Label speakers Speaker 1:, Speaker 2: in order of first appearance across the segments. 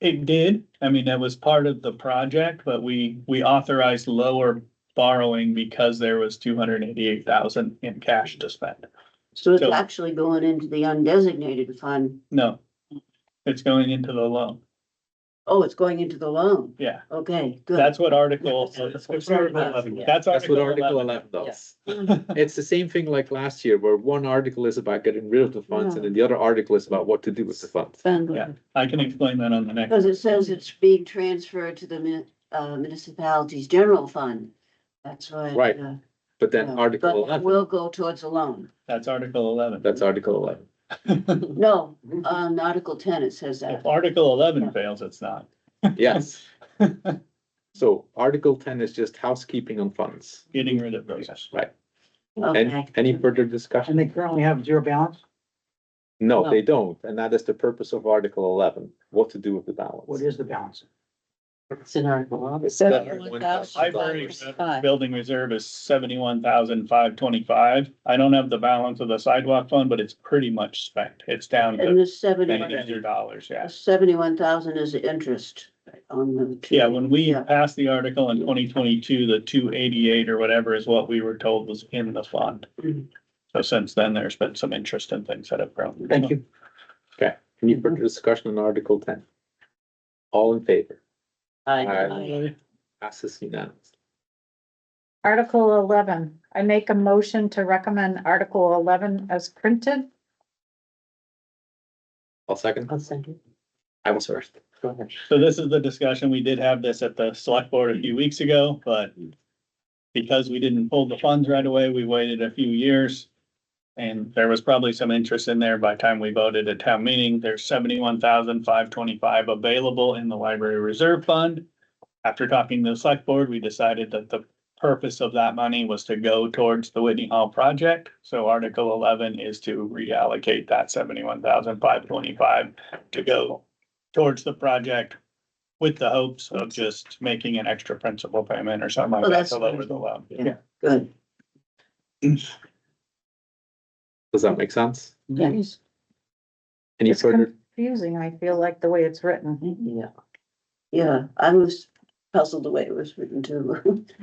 Speaker 1: It did. I mean, that was part of the project, but we, we authorized lower borrowing because there was two hundred and eighty-eight thousand in cash to spend.
Speaker 2: So it's
Speaker 1: So-
Speaker 2: actually going into the undesignated fund.
Speaker 1: No. It's going into the loan.
Speaker 2: Oh, it's going into the loan.
Speaker 1: Yeah,
Speaker 2: Okay, good.
Speaker 1: that's what article.
Speaker 2: That's what Article 11, yeah.
Speaker 1: That's
Speaker 3: That's what
Speaker 1: Article
Speaker 3: Article
Speaker 1: eleven.
Speaker 3: eleven does.
Speaker 2: Yes.
Speaker 3: It's the same thing like last year where one article is about getting rid of the funds and then the other article is about what to do with the funds.
Speaker 1: Yeah. I can explain that on the next.
Speaker 2: Because it says it's being transferred to the mun- uh, municipality's general fund. That's why.
Speaker 3: Right,
Speaker 2: uh,
Speaker 3: But then
Speaker 2: yeah.
Speaker 3: article
Speaker 2: But it
Speaker 3: eleven,
Speaker 2: Will go towards a loan.
Speaker 1: That's article eleven.
Speaker 3: that's article eleven.
Speaker 2: No,
Speaker 4: Uh.
Speaker 2: on Article ten, it says that.
Speaker 1: If article eleven fails, it's not.
Speaker 3: Yes. So article ten is just housekeeping on funds.
Speaker 1: Getting rid of those.
Speaker 3: Right.
Speaker 2: Okay.
Speaker 3: And any further discussion?
Speaker 4: And they currently have zero balance?
Speaker 3: No,
Speaker 4: No.
Speaker 3: they don't. And that is the purpose of article eleven, what to do with the
Speaker 4: What
Speaker 3: balance.
Speaker 4: is the balance?
Speaker 5: It's in Article one.
Speaker 3: It's seventy-one thousand.
Speaker 1: Library
Speaker 5: Five.
Speaker 1: building reserve is seventy-one thousand five twenty-five. I don't have the balance of the sidewalk fund, but it's pretty much spent. It's down
Speaker 2: And
Speaker 1: to
Speaker 2: this seventy-one,
Speaker 1: ninety dollars, yeah.
Speaker 2: seventy-one thousand is the interest on the. two-
Speaker 1: Yeah, when we
Speaker 2: Yeah.
Speaker 1: passed the article in twenty twenty-two, the two eighty-eight or whatever is what we were told was in the fund.
Speaker 4: Mm-hmm.
Speaker 2: Mhm.
Speaker 1: So since then, there's been some interest in things that have grown.
Speaker 4: Thank you.
Speaker 3: Any further discussion on article ten? All in favor?
Speaker 5: Aye.
Speaker 3: Passes unanimously.
Speaker 6: Article eleven, I make a motion to recommend Article eleven as printed.
Speaker 3: I'll second.
Speaker 5: I'll second.
Speaker 3: I was first.
Speaker 5: Go ahead.
Speaker 1: So this is the discussion, we did have this at the select board a few weeks ago, but because we didn't pull the funds right away, we waited a few years. And there was probably some interest in there by the time we voted at town meeting. There's seventy-one thousand five twenty-five available in the library reserve fund. After talking to the select board, we decided that the purpose of that money was to go towards the Whitney Hall project. So Article eleven is to reallocate that seventy-one thousand five twenty-five to go towards the project with the hopes of just making an extra principal payment or something like
Speaker 2: Well,
Speaker 1: that
Speaker 2: that's
Speaker 1: to
Speaker 2: what
Speaker 1: lower
Speaker 2: it-
Speaker 1: the loan.
Speaker 2: Good.
Speaker 3: Does that make sense?
Speaker 5: Yes.
Speaker 3: Any
Speaker 6: It's
Speaker 3: further,
Speaker 6: confusing, I feel like, the way it's written.
Speaker 5: Yeah.
Speaker 2: Yeah, I was puzzled the way it was written too.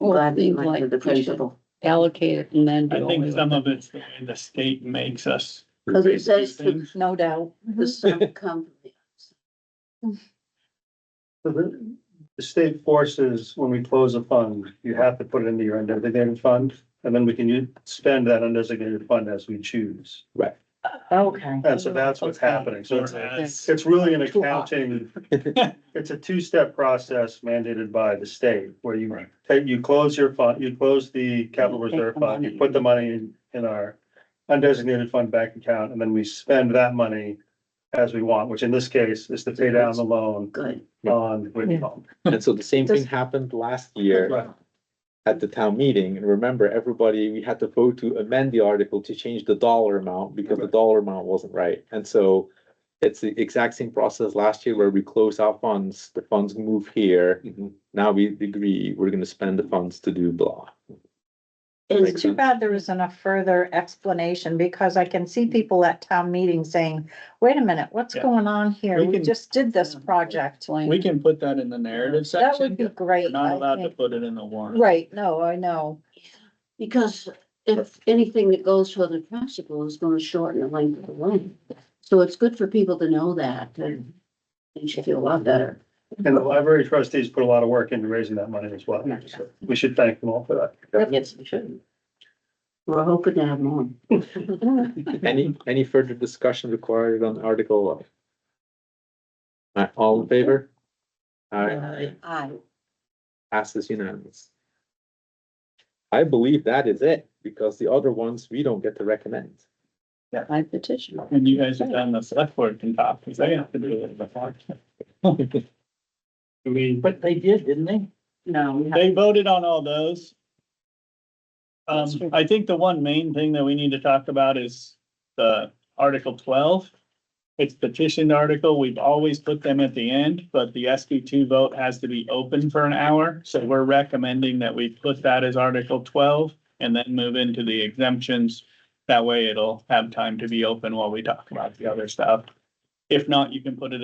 Speaker 5: Well, it
Speaker 2: Glad we
Speaker 5: seems
Speaker 2: went to
Speaker 5: like
Speaker 2: the
Speaker 5: we should
Speaker 2: principal.
Speaker 5: allocate it and then. do
Speaker 1: I
Speaker 5: away
Speaker 1: think
Speaker 5: with
Speaker 1: some
Speaker 5: it.
Speaker 1: of it's the way the state makes us.
Speaker 2: Because it
Speaker 1: raise these
Speaker 2: says the,
Speaker 1: things.
Speaker 6: No doubt.
Speaker 2: the sum come. from
Speaker 7: So The the state forces, when we close a fund, you have to put it into your undesignated fund, and then we can u- spend that undesignated fund as we choose.
Speaker 6: Okay.
Speaker 7: And so that's what's
Speaker 5: Okay.
Speaker 7: happening. So it's,
Speaker 1: Whereas-
Speaker 7: it's really an
Speaker 5: Too hot.
Speaker 7: accounting, it's a two-step process mandated by the state, where you
Speaker 1: Right.
Speaker 7: take, you close your fund, you close the capital
Speaker 5: You take
Speaker 7: reserve
Speaker 5: the
Speaker 7: fund,
Speaker 5: money.
Speaker 7: you put the money in, in our undesignated fund bank account, and then we spend that money as we want, which in this case is to pay down the loan
Speaker 2: Good.
Speaker 7: on Whitney Hall.
Speaker 3: and so the same thing
Speaker 6: Does-
Speaker 3: happened last
Speaker 7: Right.
Speaker 3: year at the town meeting, and remember, everybody, we had to vote to amend the article to change the dollar amount, because the dollar amount wasn't right, and so it's the exact same process last year where we close our funds, the funds move here, now we agree, we're gonna spend the funds to do blah.
Speaker 2: And
Speaker 3: Makes
Speaker 6: Too
Speaker 3: sense.
Speaker 6: bad there isn't a further explanation, because I can see people at town meetings saying, wait a minute, what's
Speaker 1: Yeah.
Speaker 6: going on here?
Speaker 1: We
Speaker 6: We
Speaker 1: can-
Speaker 6: just did this project.
Speaker 1: We can put that in the narrative
Speaker 6: That would
Speaker 1: section.
Speaker 6: be
Speaker 1: We're
Speaker 6: great.
Speaker 1: not
Speaker 6: I
Speaker 1: allowed to
Speaker 6: think.
Speaker 1: put it in the warrant.
Speaker 6: Right, no, I know.
Speaker 2: because if anything that goes for the principal is gonna shorten the length of the loan. So it's good for people to know that and they should feel a lot better.
Speaker 7: And the library trustees put a lot of work into raising that money as well. So We should thank them all for that.
Speaker 2: Yes, we should. We're hoping to have more.
Speaker 3: Any, any further discussion required on article eleven? Alright, all in favor? Alright,
Speaker 2: Aye.
Speaker 3: passes unanimous. I believe that is it, because the other ones we don't get to recommend.
Speaker 5: I petition.
Speaker 1: And you guys have done the select board can talk, because they have to do it before.
Speaker 7: I mean,
Speaker 4: But they did, didn't they?
Speaker 5: No, we have,
Speaker 1: They voted on all those.
Speaker 5: That's
Speaker 1: Um,
Speaker 5: true.
Speaker 1: I think the one main thing that we need to talk about is the Article twelve. It's petitioned article. We've always put them at the end, but the SB two vote has to be open for an hour. So we're recommending that we put that as Article twelve and then move into the exemptions. That way it'll have time to be open while we talk about the other stuff. If not, you can put it